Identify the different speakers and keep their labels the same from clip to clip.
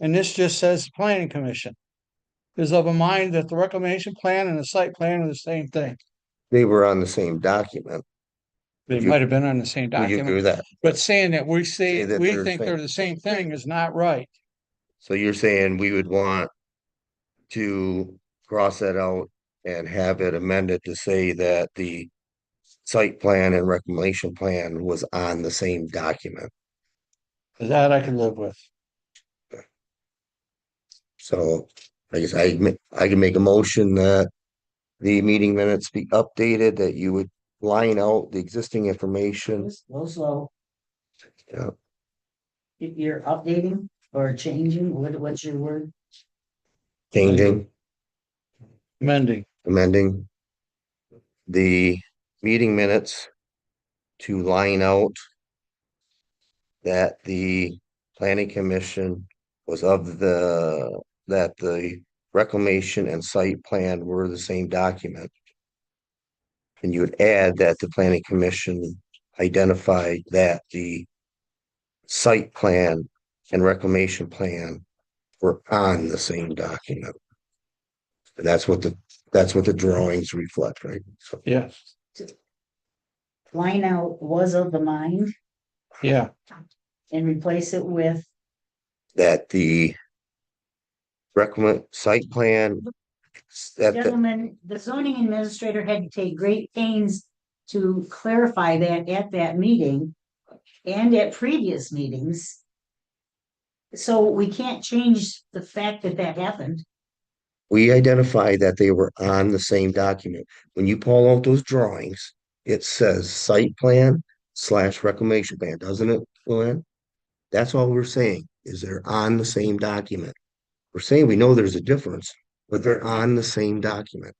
Speaker 1: And this just says planning commission. Is of a mind that the reclamation plan and the site plan are the same thing.
Speaker 2: They were on the same document.
Speaker 1: They
Speaker 2: You-
Speaker 1: might have been on the same
Speaker 2: Would you agree
Speaker 1: document,
Speaker 2: with that?
Speaker 1: but saying that we say,
Speaker 2: Say that
Speaker 1: we
Speaker 2: they're the
Speaker 1: think they're
Speaker 2: same.
Speaker 1: the same thing is not right.
Speaker 2: So you're saying we would want to cross that out and have it amended to say that the site plan and reclamation plan was on the same document.
Speaker 1: That I can live with.
Speaker 2: So I guess I, ma- I can make a motion that the meeting minutes be updated, that you would line out the existing information.
Speaker 3: Go slow.
Speaker 2: Yeah.
Speaker 3: You- You're updating or changing, what, what's your word?
Speaker 2: Changing,
Speaker 1: Mending,
Speaker 2: amending the meeting minutes to line out that the planning commission was of the, that the reclamation and site plan were the same document. And you would add that the planning commission identified that the site plan and reclamation plan were on the same document. And that's what the, that's what the drawings reflect, right? So,
Speaker 1: yes,
Speaker 3: Line out was of the mind
Speaker 1: yeah,
Speaker 3: and replace it with,
Speaker 2: that the recommend site plan that the
Speaker 3: gentlemen, the zoning administrator had to take great pains to clarify that at that meeting and at previous meetings. So we can't change the fact that that happened.
Speaker 2: we identify that they were on the same document. When you pull out those drawings, it says site plan slash reclamation plan, doesn't it, Luann? That's all we're saying, is they're on the same document. We're saying we know there's a difference, but they're on the same document.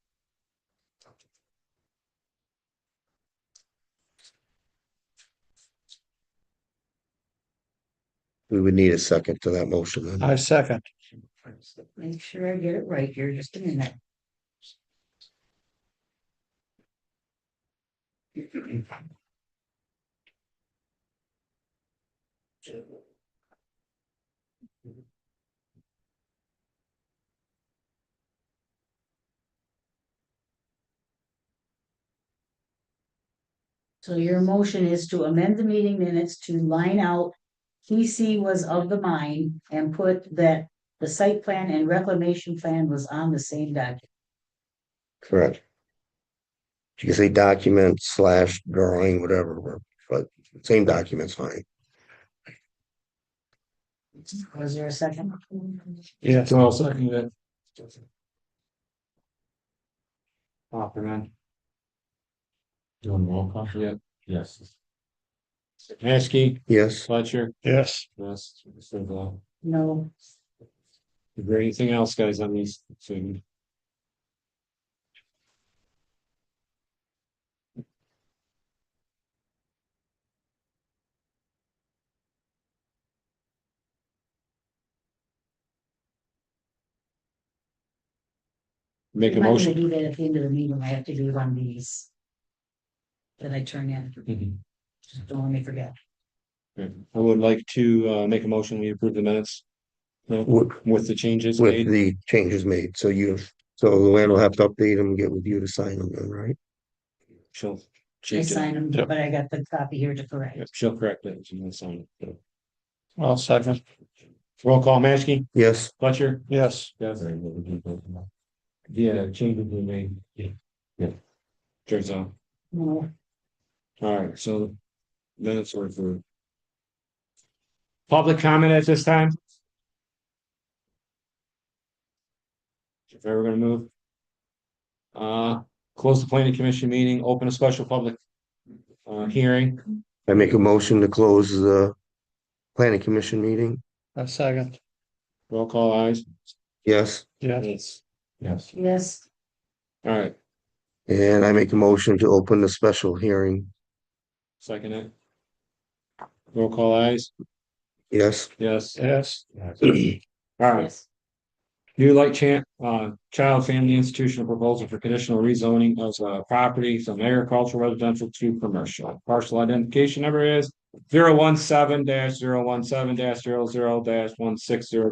Speaker 2: We would need a second to that motion then.
Speaker 1: I second.
Speaker 3: Make sure I get it right here, just a minute. So your motion is to amend the meeting minutes to line out TC was of the mind and put that the site plan and reclamation plan was on the same document.
Speaker 2: Correct. You can say document slash drawing, whatever, but same document's fine.
Speaker 3: Was there a second?
Speaker 1: Yes,
Speaker 4: So I'll second that. Offerman. Doing roll call? Yeah. Yes. Maskey,
Speaker 2: Yes,
Speaker 4: Fletcher,
Speaker 1: yes.
Speaker 4: yes, so the,
Speaker 3: No,
Speaker 4: is there anything else, guys, on these two? Make a
Speaker 3: I'm not gonna
Speaker 4: motion.
Speaker 3: do that at the end of the meeting, I have to do it on these. That I turn in,
Speaker 4: Mhm.
Speaker 3: just don't let me forget.
Speaker 4: Okay, I would like to uh make a motion, we approve the minutes. No,
Speaker 2: with,
Speaker 4: with the changes
Speaker 2: with
Speaker 4: made,
Speaker 2: the changes made, so you, so Luann will have to update them, get with you to sign them, then, right?
Speaker 4: she'll.
Speaker 3: I
Speaker 4: change it.
Speaker 3: sign them, but I got the copy here to correct.
Speaker 4: Yep, She'll correct it, she's gonna sign it.
Speaker 1: I'll second,
Speaker 4: Roll call, Mansky,
Speaker 2: Yes,
Speaker 4: Fletcher.
Speaker 1: yes.
Speaker 4: Yes. Yeah, changes were made. Yeah. Yeah. Turns out,
Speaker 3: No,
Speaker 4: alright, so minutes were for. Public comment at this time? If ever gonna move. Uh, close the planning commission meeting, open a special public. Uh, hearing.
Speaker 2: I make a motion to close the planning commission meeting,
Speaker 1: I second,
Speaker 4: Roll call eyes.
Speaker 2: yes,
Speaker 1: yes.
Speaker 4: Yes. Yes.
Speaker 3: yes,
Speaker 4: All right,
Speaker 2: and I make a motion to open the special hearing,
Speaker 4: second it. Roll call eyes.
Speaker 2: yes.
Speaker 4: Yes.
Speaker 1: Yes,
Speaker 4: All right,
Speaker 3: yes,
Speaker 4: new light chan uh, child family institutional proposal for conditional rezoning of uh, property from agricultural residential to commercial. Parcel identification number is zero one seven dash zero one seven dash zero zero dash one six zero